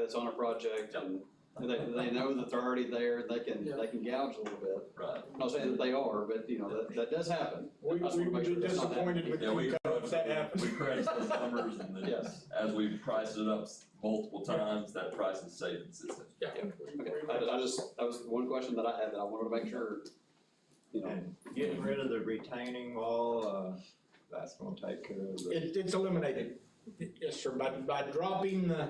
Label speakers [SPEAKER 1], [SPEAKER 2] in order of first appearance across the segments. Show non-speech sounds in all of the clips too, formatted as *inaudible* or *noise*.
[SPEAKER 1] that's on a project
[SPEAKER 2] Yeah.
[SPEAKER 1] and they, they know that they're already there, they can, they can gouge a little bit.
[SPEAKER 2] Right.
[SPEAKER 1] I'm not saying that they are, but you know, that, that does happen.
[SPEAKER 3] We,
[SPEAKER 1] I just
[SPEAKER 3] we
[SPEAKER 1] wanna
[SPEAKER 3] would
[SPEAKER 1] make sure
[SPEAKER 3] be
[SPEAKER 1] that's not
[SPEAKER 3] disappointed with
[SPEAKER 2] Yeah, we
[SPEAKER 3] you if that
[SPEAKER 2] crunch-
[SPEAKER 3] happened.
[SPEAKER 2] we
[SPEAKER 3] *laughs*
[SPEAKER 2] crunched those numbers and then
[SPEAKER 1] Yes.
[SPEAKER 2] as we priced it up s- multiple times, that price has stayed consistent.
[SPEAKER 1] Okay, I, I just, that was one question that I had that I wanted to make sure, you know.
[SPEAKER 4] And getting rid of the retaining wall, uh, that's gonna take care of the.
[SPEAKER 3] It, it's eliminated, yes, sir, by, by dropping the,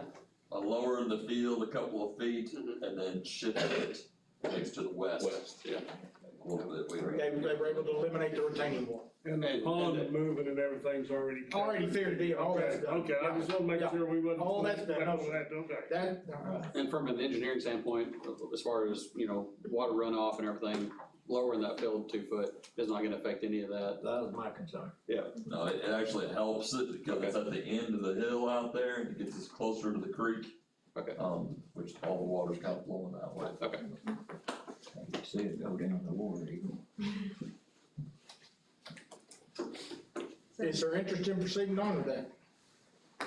[SPEAKER 2] I lowered the field a couple of feet and then shifted it next to the west
[SPEAKER 1] Mm-hmm. West, yeah.
[SPEAKER 2] a little bit. We
[SPEAKER 3] they,
[SPEAKER 2] were-
[SPEAKER 3] they were able to eliminate the retaining wall.
[SPEAKER 5] And
[SPEAKER 1] And-
[SPEAKER 5] the
[SPEAKER 1] and
[SPEAKER 5] pond moving and everything's already.
[SPEAKER 3] Already fair deal, all that's
[SPEAKER 5] Okay,
[SPEAKER 3] done.
[SPEAKER 5] okay, I just wanna make
[SPEAKER 3] Yeah.
[SPEAKER 5] sure we wasn't.
[SPEAKER 3] All that's done.
[SPEAKER 5] That was that, okay.
[SPEAKER 3] That, uh,
[SPEAKER 1] And from an engineering standpoint, as far as, you know, water runoff and everything, lowering that field two foot is not gonna affect any of that.
[SPEAKER 4] That was my concern.
[SPEAKER 2] No, it, it actually helps it because it's at the end of the hill out there and it gets us closer to the creek.
[SPEAKER 1] Okay.
[SPEAKER 2] Um, which all the water's kind of flowing that way.
[SPEAKER 1] Okay,
[SPEAKER 4] I could see it go down the water even.
[SPEAKER 6] *laughs*
[SPEAKER 3] is there interest in proceeding on with that?
[SPEAKER 6] I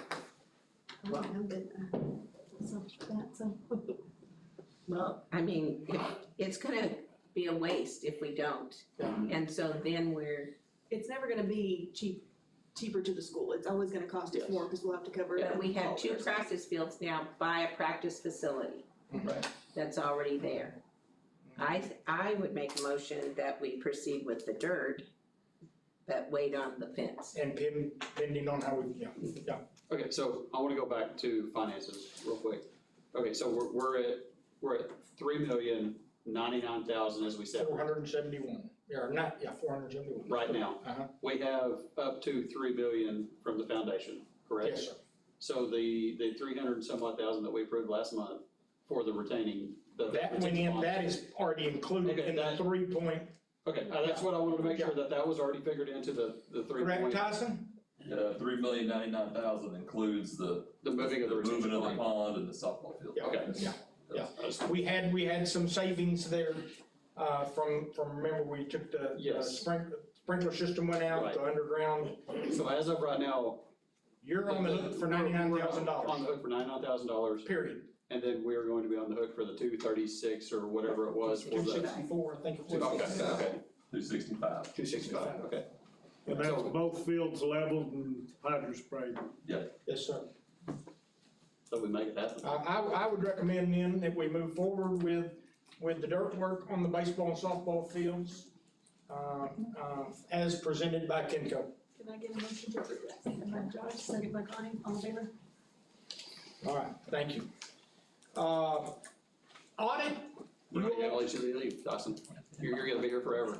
[SPEAKER 6] don't know, but, uh, so, that's, uh,
[SPEAKER 7] Well, I mean, it- it's gonna be a waste if we don't.
[SPEAKER 3] Yeah.
[SPEAKER 7] And so then we're,
[SPEAKER 6] it's never gonna be cheap, cheaper to the school, it's always gonna cost it more, because we'll have to cover it.
[SPEAKER 7] but we have two
[SPEAKER 6] ourselves.
[SPEAKER 7] practice fields now by a practice facility.
[SPEAKER 2] Right.
[SPEAKER 7] That's already there. I, th- I would make a motion that we proceed with the dirt, but wait on the fence.
[SPEAKER 3] And pin, pending on how we, yeah,
[SPEAKER 1] okay, so I wanna go back to finances real quick. Okay, so we're, we're at, we're at three million ninety-nine thousand as we said
[SPEAKER 3] four hundred and seventy-one, or not, yeah, four hundred and seventy-one.
[SPEAKER 1] right now.
[SPEAKER 3] Uh-huh.
[SPEAKER 1] We have up to three billion from the foundation, correct?
[SPEAKER 3] Yes, sir.
[SPEAKER 1] So the, the three hundred and some odd thousand that we approved last month for the retaining, the.
[SPEAKER 3] That went in, that is already included
[SPEAKER 1] Okay,
[SPEAKER 3] in the
[SPEAKER 1] that-
[SPEAKER 3] three point,
[SPEAKER 1] Okay, uh, that's what I wanted to make sure that that was already figured into the, the three
[SPEAKER 3] correct,
[SPEAKER 1] point,
[SPEAKER 3] Tyson?
[SPEAKER 2] Yeah, three million ninety-nine thousand includes the.
[SPEAKER 1] the moving of the retention
[SPEAKER 2] movement of the
[SPEAKER 1] pond.
[SPEAKER 2] pond and the softball field.
[SPEAKER 3] Yeah,
[SPEAKER 1] okay,
[SPEAKER 3] yeah, yeah.
[SPEAKER 1] I just-
[SPEAKER 3] We had, we had some savings there, uh, from, from, remember, we took the. the
[SPEAKER 1] Yes.
[SPEAKER 3] sprink- Sprinkler system went out, the underground,
[SPEAKER 1] So as of right now.
[SPEAKER 3] you're on the hook for
[SPEAKER 1] we're- we're
[SPEAKER 3] ninety-nine thousand
[SPEAKER 1] On the
[SPEAKER 3] dollars,
[SPEAKER 1] hook for ninety-nine thousand dollars,
[SPEAKER 3] period.
[SPEAKER 1] and then we're going to be on the hook for the two thirty-six or whatever it was for
[SPEAKER 3] Two
[SPEAKER 1] the.
[SPEAKER 3] sixty-four, I think it was.
[SPEAKER 1] Okay, okay,
[SPEAKER 2] Two sixty-five.
[SPEAKER 1] two sixty-five, okay.
[SPEAKER 5] And that's both fields leveled and hydro sprayed.
[SPEAKER 3] Yes, sir.
[SPEAKER 1] So we make it
[SPEAKER 3] I,
[SPEAKER 1] happen.
[SPEAKER 3] I, I would recommend then that we move forward with, with the dirt work on the baseball and softball fields, um, um, as presented by Kenco.
[SPEAKER 6] Can I get a motion to approve that, second by Josh, second by Connie, all in favor?
[SPEAKER 7] *laughs*
[SPEAKER 3] All right, thank you. Uh, audit, *laughs*
[SPEAKER 1] We're not gonna let you leave, Dawson. You're, you're gonna be here forever.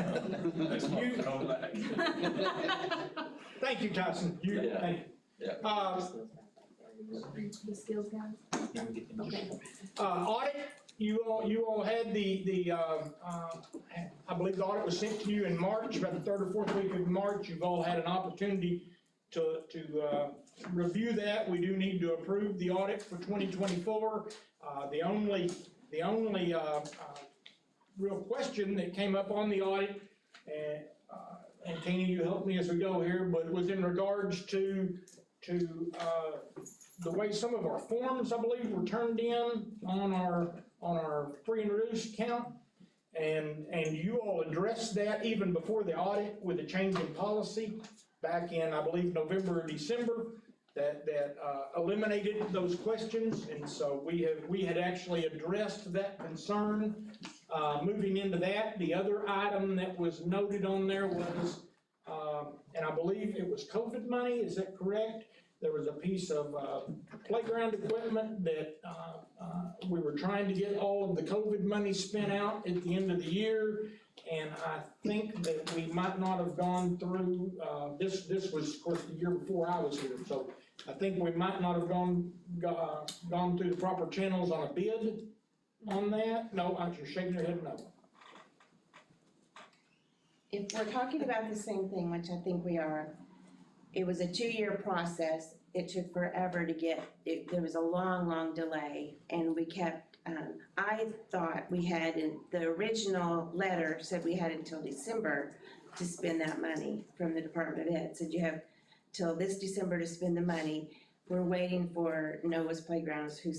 [SPEAKER 2] Next month,
[SPEAKER 3] You-
[SPEAKER 2] come back.
[SPEAKER 3] thank you, Tyson, you,
[SPEAKER 1] Yeah.
[SPEAKER 3] thank you.
[SPEAKER 2] Yeah.
[SPEAKER 3] Uh,
[SPEAKER 6] The skills guys. Okay.
[SPEAKER 3] Uh, audit, you all, you all had the, the, um, uh, I believe the audit was sent to you in March, about the third or fourth week of March. You've all had an opportunity to, to, uh, review that. We do need to approve the audit for 2024. Uh, the only, the only, uh, uh, real question that came up on the audit, and, uh, and Tina, you help me as we go here, but was in regards to, to, uh, the way some of our forms, I believe, were turned in on our, on our free and reduced account. And, and you all addressed that even before the audit with a change in policy back in, I believe, November or December that, that uh, eliminated those questions. And so we have, we had actually addressed that concern. Uh, Moving into that, the other item that was noted on there was, um, and I believe it was COVID money, is that correct? There was a piece of uh, playground equipment that uh, uh, we were trying to get all of the COVID money spent out at the end of the year. And I think that we might not have gone through, uh, this, this was, of course, the year before I was here. So I think we might not have gone, go- uh, gone through the proper channels on a bid on that. No, I'm just shaking your head no.
[SPEAKER 8] if we're talking about the same thing, which I think we are, it was a two-year process. It took forever to get, it, there was a long, long delay and we kept, um, I thought we had, in- the original letter said we had until December to spend that money from the Department of Ed, said you have till this December to spend the money. We're waiting for Noah's Playgrounds, who